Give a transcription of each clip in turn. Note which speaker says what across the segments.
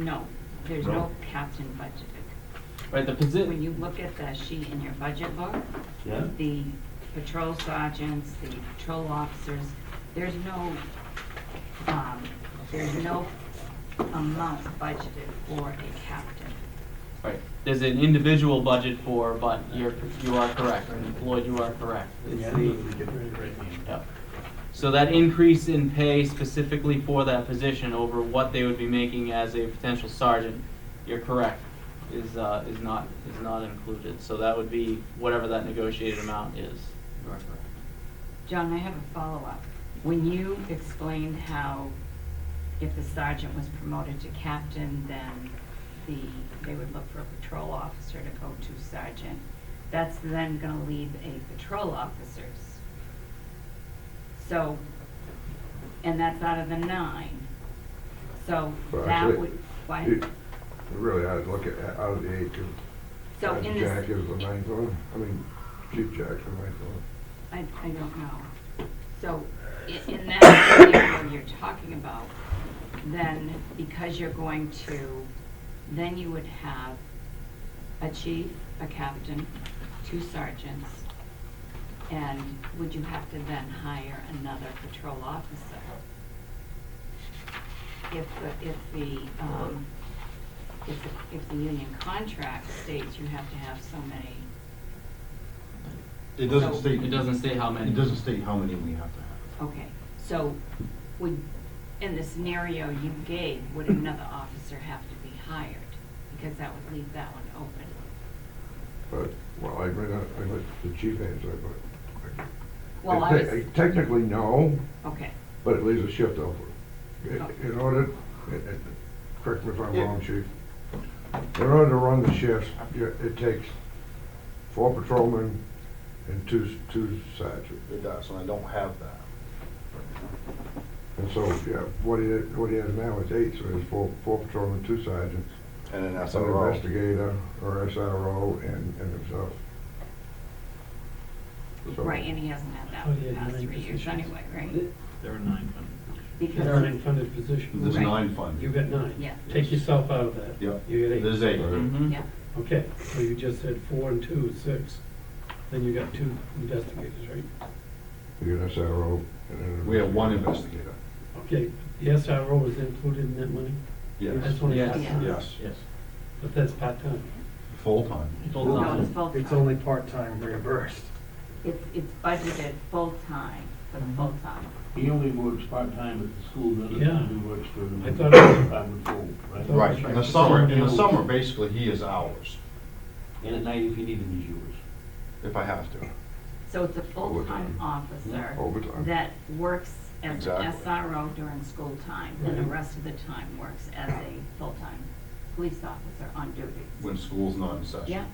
Speaker 1: No, there's
Speaker 2: No?
Speaker 1: no captain budgeted.
Speaker 2: Right, the
Speaker 1: When
Speaker 2: position,
Speaker 1: you look at the sheet in your budget book,
Speaker 2: yeah,
Speaker 1: the patrol sergeants, the patrol officers, there's no, um, there's no amount budgeted for a captain.
Speaker 2: right. There's an individual budget for, but you're, you are correct, Lloyd, you are correct. It's the- Yep. So that increase in pay specifically for that position over what they would be making as a potential sergeant, you're correct, is, uh, is not, is not included. So that would be whatever that negotiated amount is. You are correct.
Speaker 1: John, I have a follow-up. When you explained how if the sergeant was promoted to captain, then the, they would look for a patrol officer to go to sergeant, that's then gonna leave a patrol officers. So, and that's out of the nine. So
Speaker 3: Well,
Speaker 1: that
Speaker 3: actually,
Speaker 1: would, what?
Speaker 3: You you really ought to look at, out of the eight, 'cause
Speaker 1: So in this.
Speaker 3: Jack is the ninth one, I mean, Chief Jack's the ninth one.
Speaker 1: I, I don't know. So, i- in that scenario you're talking about, then because you're going to, then you would have a chief, a captain, two sergeants, and would you have to then hire another patrol officer? If the, if the, um, if the, if the union contract states you have to have so many,
Speaker 4: It
Speaker 1: So-
Speaker 4: doesn't state.
Speaker 2: It doesn't state how many.
Speaker 4: It doesn't state how many we have to have.
Speaker 1: Okay, so would, in the scenario you gave, would another officer have to be hired? Because that would leave that one open.
Speaker 3: But, well, I read, out- I let the chief answer, but.
Speaker 1: Well, I
Speaker 3: Te-
Speaker 1: was,
Speaker 3: Technically, no,
Speaker 1: okay,
Speaker 3: but it leaves a shift open. In-
Speaker 1: Okay.
Speaker 3: In order, and- and correct me if I'm
Speaker 4: Yeah.
Speaker 3: wrong, chief, in order to run the shifts, you- it takes four patrolmen and two, s- two sergeants.
Speaker 5: It does, and I don't have that.
Speaker 3: And so, yeah, what he, what he has now is eight, so there's four, four patrolmen, two sergeants.
Speaker 5: And an
Speaker 3: an
Speaker 5: SRO.
Speaker 3: investigator or SRO and, and himself. So-
Speaker 1: right, and he hasn't had that
Speaker 6: Oh,
Speaker 1: for the
Speaker 6: yeah,
Speaker 1: past
Speaker 6: nine
Speaker 1: three years
Speaker 6: positions.
Speaker 1: anyway, right?
Speaker 7: There are nine funded.
Speaker 1: Because
Speaker 6: There are an unfunded position.
Speaker 4: There's
Speaker 1: Right.
Speaker 4: nine
Speaker 6: You
Speaker 4: funded.
Speaker 6: got nine.
Speaker 1: Yeah.
Speaker 6: Take yourself out of that.
Speaker 4: Yep.
Speaker 6: You got eight.
Speaker 4: There's eight.
Speaker 2: Mhm.
Speaker 1: Hmm? Yeah,
Speaker 6: Okay, so you just said four and two is six. Then you got two investigators, right?
Speaker 3: You got SRO and an
Speaker 4: We have one
Speaker 3: investigator.
Speaker 4: investigator.
Speaker 6: Okay, the SRO is included in that money?
Speaker 4: Yes,
Speaker 6: That's only
Speaker 2: Yes.
Speaker 6: part-time?
Speaker 4: yes,
Speaker 7: Yes.
Speaker 6: But that's part-time.
Speaker 4: full-time.
Speaker 1: no,
Speaker 2: Full-time.
Speaker 1: it's full-time.
Speaker 7: It's only part-time reimbursed.
Speaker 1: It's, it's budgeted full-time, for the full-time.
Speaker 8: He only works part-time at the school, the other
Speaker 6: Yeah.
Speaker 8: time he works for the
Speaker 6: I thought it was-
Speaker 8: department pool, right?
Speaker 6: thought it
Speaker 4: Right, in the summer, in the summer, basically, he is ours,
Speaker 8: And at night, if you need him, he's yours.
Speaker 4: if I have to.
Speaker 1: So it's a full-time
Speaker 3: Overtime. Oh,
Speaker 1: officer
Speaker 3: Overtime.
Speaker 1: that works as an
Speaker 4: Exactly. Mm-hmm.
Speaker 1: SRO during school time, and the
Speaker 6: Right.
Speaker 1: rest of the time works as a full-time police officer on duty.
Speaker 4: When school's not in session.
Speaker 1: Yeah.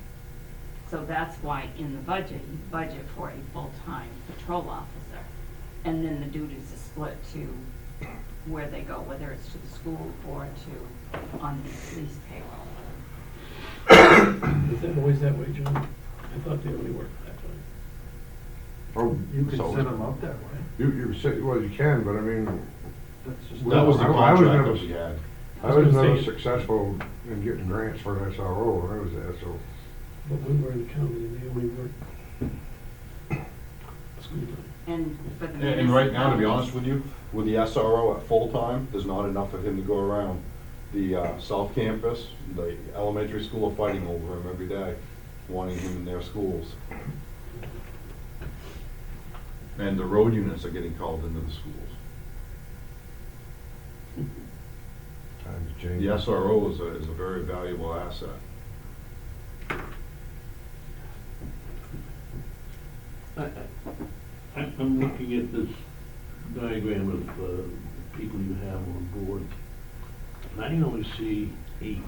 Speaker 1: So that's why in the budget, you budget for a full-time patrol officer. And then the duties are split to where they go, whether it's to the school or to, on the police payroll.
Speaker 6: Is that always that way, John? I thought they only worked that way.
Speaker 3: Oh,
Speaker 4: You could set
Speaker 3: so,
Speaker 4: him up that way.
Speaker 3: you, you say, well, you can, but I mean,
Speaker 4: That's just.
Speaker 3: Well,
Speaker 4: That was the
Speaker 3: I- I was
Speaker 4: contract
Speaker 3: never-
Speaker 4: that we had.
Speaker 3: I
Speaker 6: was
Speaker 3: was
Speaker 6: gonna
Speaker 3: never
Speaker 6: say-
Speaker 3: successful in getting grants for an SRO when I was there, so.
Speaker 6: But we were in the county and they only worked school time.
Speaker 1: And for the
Speaker 4: And- And right now, to be
Speaker 1: municipalities-
Speaker 4: honest with you, with the SRO at full-time, there's not enough of him to go around. The uh, South Campus, the elementary school are fighting over him every day, wanting him in their schools. And the road units are getting called into the schools.
Speaker 3: Times change.
Speaker 4: The SRO is a, is a very valuable asset.
Speaker 8: I- I- I'm, I'm looking at this diagram of, uh, people you have on board, and I only see eight,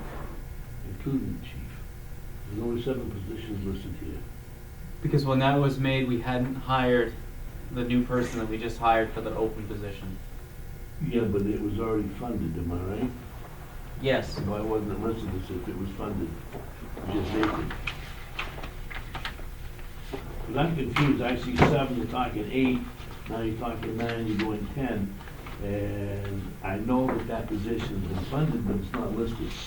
Speaker 8: including the chief. There's only seven positions listed here.
Speaker 2: Because when that was made, we hadn't hired the new person that we just hired for the open position.
Speaker 8: Yeah, but it was already funded, am I right?
Speaker 2: Yes.
Speaker 8: No, I wasn't listed as if it was funded, just vacant. Because I'm confused, I see seven, you're talking eight, now you're talking nine, you're going ten. And I know that that position's been funded, but it's not listed.